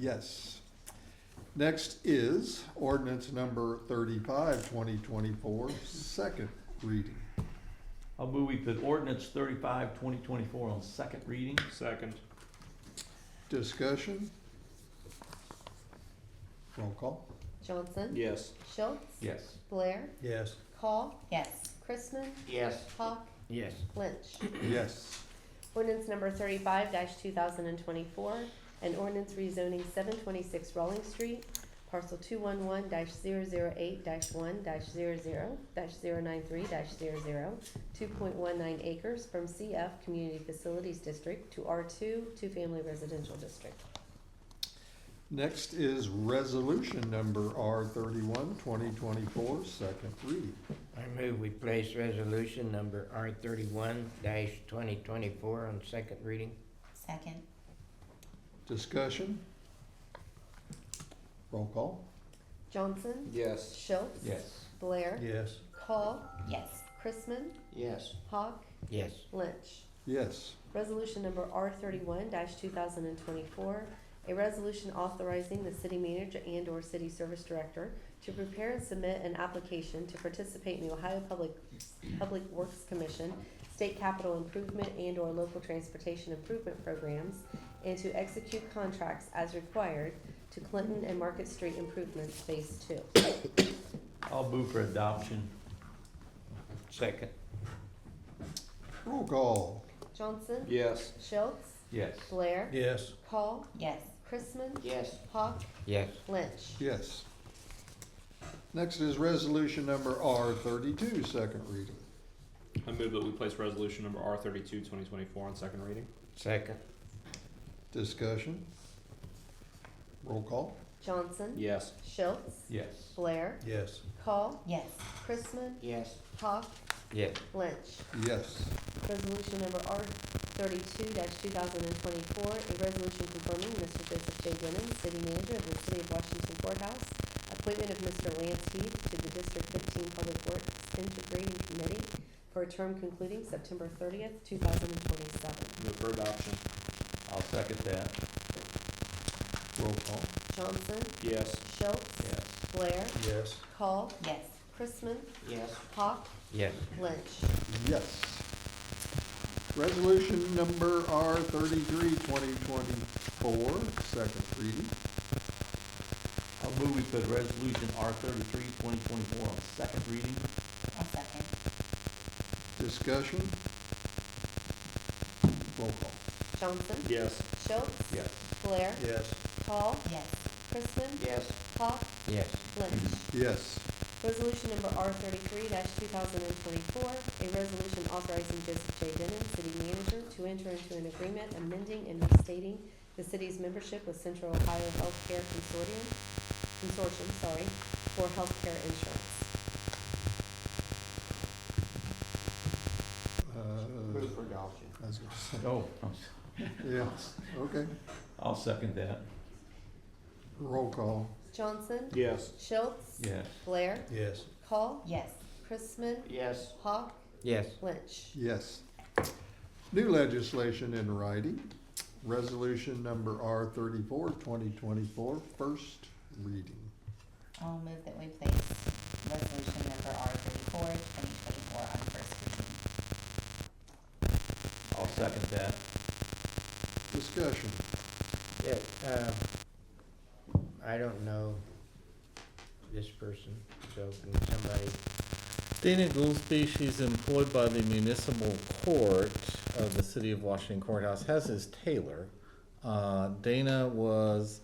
Yes. Next is ordinance number 35, 2024, second reading. I'll move we put ordinance 35-2024 on second reading. Second. Discussion? Roll call? Johnson. Yes. Schultz. Yes. Blair. Yes. Call. yes, Chrisman. Yes. Hawk. yes, Lynch. Yes. Ordinance number thirty-five two thousand and twenty-four, an ordinance rezoning seven twenty-six Rawling Street, parcel two-one-one 8 one 0 932 point one-nine acres from CF Community Facilities District to R two, two-family residential district. Next is resolution number R 31, 2024, second reading. I move we place resolution number R thirty-one twenty twenty-four on second reading. second, Discussion? Roll call? Johnson, Yes. Schultz. Yes. Blair. Yes. Call. yes, Chrisman. Yes. Hawk. Yes, Lynch. Yes. Resolution number R thirty-one two thousand and twenty-four, a resolution authorizing the city manager and/or city service director to prepare and submit an application to participate in the Ohio Public, Public Works Commission, state capital improvement and/or local transportation improvement programs, and to execute contracts as required to Clinton and Market Street improvements, phase two. I'll move for adoption. second, Roll call? Johnson? Yes. Schultz? Yes. Blair? Yes. Call? yes, Chrisman? Yes. Hawk? yes, Lynch? Yes. Next is resolution number R 32, second reading. I move that we place resolution number R thirty-two, twenty twenty-four on second reading. second, Discussion? Roll call? Johnson? Yes. Schultz? Yes. Blair, Yes. Call, yes, Chrisman, yes, Hawk, yes, Lynch. Yes. Resolution number R thirty-two two thousand and twenty-four, a resolution confirming Mr. Joseph J. Brennan, city manager of the city of Washington Courthouse, appointment of Mr. Lance Heath to the District Fifteen Public Works Integrating Committee for a term concluding September thirtieth, two thousand and twenty-seven. Move for adoption. I'll second that. Roll call? Johnson, Yes. Schultz, Yes. Blair, Yes. Call, yes, Chrisman, yes, Hawk, yes, Lynch. Yes. Resolution number R 33 2024, second reading. I'll move we put resolution R 33-2024 on second reading. I'll second, Discussion? Roll call? Johnson, Yes. Schultz, Yes. Blair, Yes. Call, yes, Chrisman, yes, Hawk, yes, Lynch. Yes. Resolution number R thirty-three two thousand and twenty-four, a resolution authorizing Joseph J. Denon, city manager, to enter into an agreement amending and restating the city's membership with Central Ohio Healthcare Consortium, Consortium, sorry, for healthcare insurance. Uh, move for adoption. I was gonna say, Oh, yes, okay. I'll second that. Roll call? Johnson, Yes. Schultz, Yes. Blair, Yes. Call, yes, Chrisman, Yes. Hawk, Yes, Lynch. Yes. New legislation in writing, resolution number R 34 2024, first reading. I'll move that we place resolution number R thirty-four, twenty twenty-four on first reading, I'll second that. Discussion, yeah, uh, um, I don't know this person, so can somebody, Dana Goolsby, she's employed by the municipal court of the city of Washington courthouse, as is Taylor. Uh, Dana was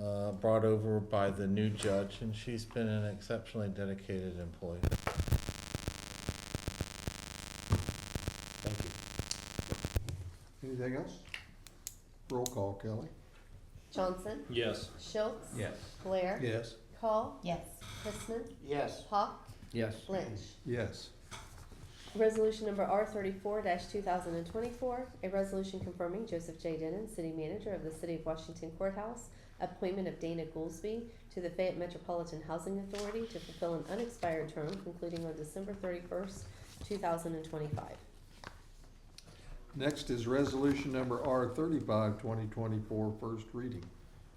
uh, brought over by the new judge, and she's been an exceptionally dedicated employee. thank you. anything else? Roll call, Kelly. Johnson, Yes. Schultz, Yes. Blair, Yes. Call, yes, Chrisman, Yes. Hawk, Yes. Lynch. Yes. Resolution number R thirty-four two thousand and twenty-four, a resolution confirming Joseph J. Denon, city manager of the city of Washington courthouse, appointment of Dana Goolsby to the Fayette Metropolitan Housing Authority to fulfill an unexpired term concluding on December thirty-first, two thousand and twenty-five. Next is resolution number R 35 2024, first reading.